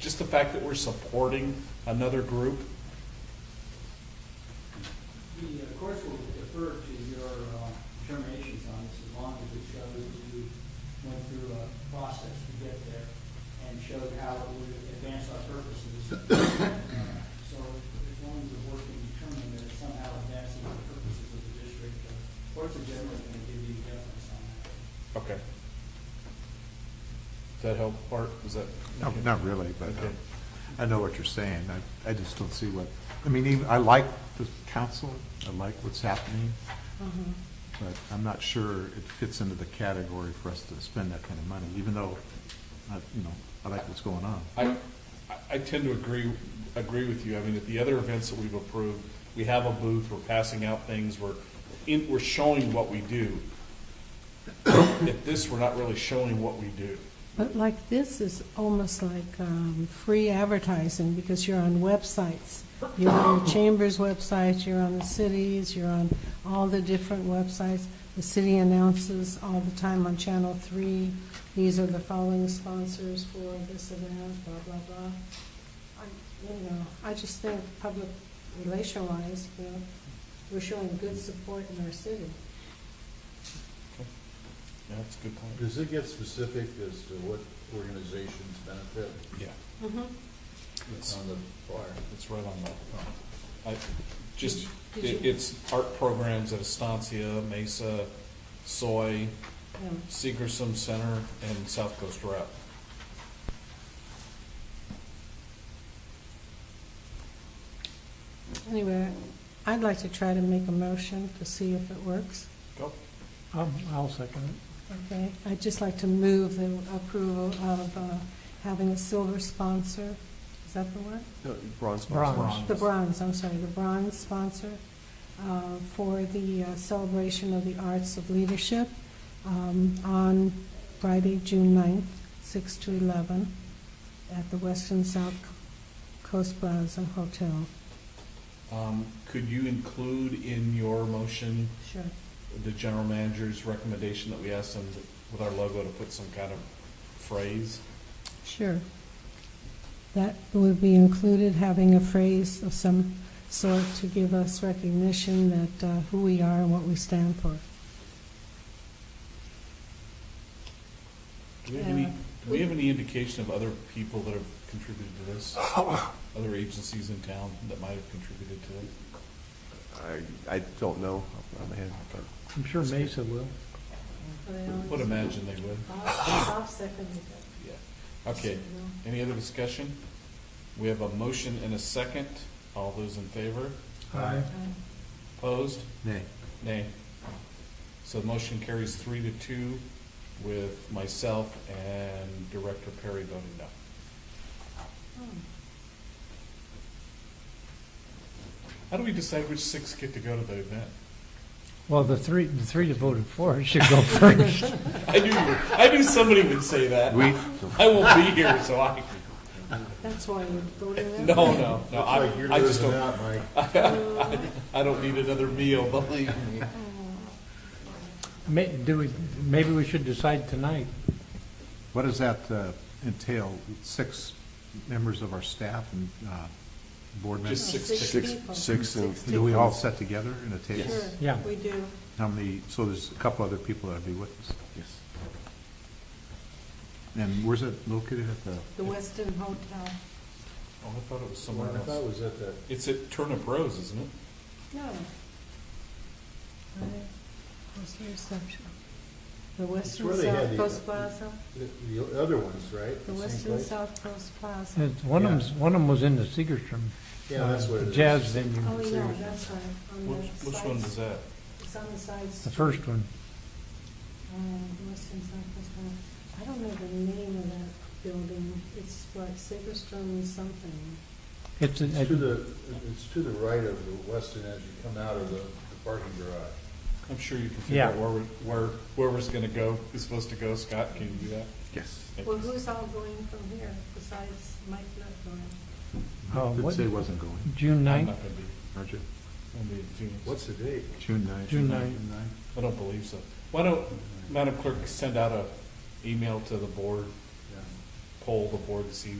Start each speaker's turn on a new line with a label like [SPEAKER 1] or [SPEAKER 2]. [SPEAKER 1] just the fact that we're supporting another group,
[SPEAKER 2] The uh, courts will defer to your uh, determinations on this as long as it shows you went through a process to get there and showed how it would advance our purposes. Uh, So as long as the board can determine that it somehow advances the purposes of the district, the courts are generally going to give you deference on that.
[SPEAKER 1] okay. Does that help, Bart? Is that?
[SPEAKER 3] No, not really, but uh,
[SPEAKER 1] Okay.
[SPEAKER 3] I know what you're saying. I, I just don't see what, I mean, even, I like the council, I like what's happening, but I'm not sure it fits into the category for us to spend that kind of money, even though, I, you know, I like what's going on.
[SPEAKER 1] I, I- I tend to agree, agree with you. I mean, at the other events that we've approved, we have a booth, we're passing out things, we're in, we're showing what we do. At this, we're not really showing what we do.
[SPEAKER 4] But like this is almost like um, free advertising because you're on websites. You're on your chamber's website, you're on the cities, you're on all the different websites. The city announces all the time on Channel 3, these are the following sponsors for this event, blah, blah, blah. I- You know, I just think public relation-wise, you know, we're showing good support in our city.
[SPEAKER 1] Yeah, that's a good point.
[SPEAKER 5] Does it get specific as to what organizations benefit
[SPEAKER 1] Yeah. It's, um,
[SPEAKER 5] on the flyer?
[SPEAKER 1] it's right on the, I, just,
[SPEAKER 4] Did
[SPEAKER 1] it,
[SPEAKER 4] you-
[SPEAKER 1] it's art programs at Estancia, Mesa, Soy,
[SPEAKER 4] Yeah.
[SPEAKER 1] Seagram Center, and South Coast Rep.
[SPEAKER 4] Anyway, I'd like to try to make a motion to see if it works,
[SPEAKER 1] Go.
[SPEAKER 6] Um, I'll second it.
[SPEAKER 4] okay? I'd just like to move the approval of uh, having a silver sponsor, is that the word?
[SPEAKER 3] Bronze.
[SPEAKER 6] Bronze.
[SPEAKER 4] The bronze, I'm sorry, the bronze sponsor uh, for the uh, celebration of the arts of leadership um, on Friday, June 9th, 6 to 11, at the Western South Coast Plaza Hotel.
[SPEAKER 1] Um, Could you include in your motion
[SPEAKER 4] Sure.
[SPEAKER 1] the general manager's recommendation that we ask them with our logo to put some kind of phrase?
[SPEAKER 4] Sure. That would be included, having a phrase of some sort to give us recognition that uh, who we are and what we stand for.
[SPEAKER 1] Do we have any,
[SPEAKER 4] Yeah.
[SPEAKER 1] do we have any indication of other people that have contributed to this? Other agencies in town that might have contributed to it?
[SPEAKER 7] I, I don't know off the top of my head, but
[SPEAKER 6] I'm sure Mesa will.
[SPEAKER 1] Would imagine they would,
[SPEAKER 4] Bob seconded
[SPEAKER 1] yeah. Okay, any other discussion? We have a motion and a second. All those in favor?
[SPEAKER 6] Aye.
[SPEAKER 1] Opposed?
[SPEAKER 3] Nay.
[SPEAKER 1] Nay. So the motion carries three to two with myself and Director Perry voting no. How do we decide which six get to go to the event?
[SPEAKER 6] Well, the three, the three that voted for it should go first.
[SPEAKER 1] I knew, I knew somebody would say that.
[SPEAKER 3] We,
[SPEAKER 1] I won't be here, so I,
[SPEAKER 4] That's why you voted
[SPEAKER 1] no,
[SPEAKER 4] in.
[SPEAKER 1] no, no, I,
[SPEAKER 5] Looks like you're
[SPEAKER 1] I just
[SPEAKER 5] losing
[SPEAKER 1] don't,
[SPEAKER 5] out, Mike.
[SPEAKER 1] I don't need another meal, believe me.
[SPEAKER 4] Oh,
[SPEAKER 6] May, do we, maybe we should decide tonight.
[SPEAKER 3] what does that uh, entail? Six members of our staff and uh, board
[SPEAKER 1] Just
[SPEAKER 3] members?
[SPEAKER 1] six
[SPEAKER 7] six-
[SPEAKER 4] people.
[SPEAKER 7] six and-
[SPEAKER 4] Six
[SPEAKER 3] Do we all
[SPEAKER 4] people.
[SPEAKER 3] sit together in a table?
[SPEAKER 4] Sure,
[SPEAKER 6] Yeah.
[SPEAKER 4] we do.
[SPEAKER 3] How many, so there's a couple other people that'll be with us?
[SPEAKER 7] yes.
[SPEAKER 3] And where's it located at the?
[SPEAKER 4] The Westin Hotel.
[SPEAKER 1] Oh, I thought it was
[SPEAKER 5] Well,
[SPEAKER 1] somewhere
[SPEAKER 5] I thought it
[SPEAKER 1] else.
[SPEAKER 5] was at that,
[SPEAKER 1] It's at Turnip Rose, isn't it?
[SPEAKER 4] No. What's the reception? The Western
[SPEAKER 5] where they had
[SPEAKER 4] South
[SPEAKER 5] the-
[SPEAKER 4] Coast Plaza?
[SPEAKER 5] the- the other ones, right?
[SPEAKER 4] The
[SPEAKER 5] same
[SPEAKER 4] Western
[SPEAKER 5] place?
[SPEAKER 4] South Coast Plaza.
[SPEAKER 6] It's- One of them's, one of them was in the Segerstrom.
[SPEAKER 5] Yeah, that's
[SPEAKER 6] uh,
[SPEAKER 5] what it is.
[SPEAKER 6] Jazz venue,
[SPEAKER 4] Oh, yeah, that's right. on the
[SPEAKER 1] Which, which
[SPEAKER 4] side-
[SPEAKER 1] one was that?
[SPEAKER 4] It's on the sides,
[SPEAKER 6] the
[SPEAKER 4] um,
[SPEAKER 6] first one.
[SPEAKER 4] Western South Coast Plaza. I don't know the name of that building. It's what, Sagerstrom something.
[SPEAKER 6] It's, a-
[SPEAKER 5] It's to the, it's to the right of the western as you come out of the the parking garage.
[SPEAKER 1] I'm sure you can figure out
[SPEAKER 6] Yeah.
[SPEAKER 1] where, we- where, whoever's gonna go, who's supposed to go. Scott, can you do that?
[SPEAKER 7] Yes.
[SPEAKER 1] Thank
[SPEAKER 4] Well,
[SPEAKER 1] you.
[SPEAKER 4] who's all going from here besides Mike not going?
[SPEAKER 6] uh,
[SPEAKER 3] Did
[SPEAKER 6] what,
[SPEAKER 3] say wasn't going,
[SPEAKER 6] June
[SPEAKER 1] I'm
[SPEAKER 6] ninth?
[SPEAKER 1] not gonna be,
[SPEAKER 3] aren't you?
[SPEAKER 1] gonna be in Phoenix.
[SPEAKER 5] What's the date?
[SPEAKER 3] June ninth.
[SPEAKER 6] June ninth.
[SPEAKER 3] June ninth.
[SPEAKER 1] I don't believe so. Why don't, Madam Clerk, send out a email to the board,
[SPEAKER 5] Yeah.
[SPEAKER 1] poll the board to see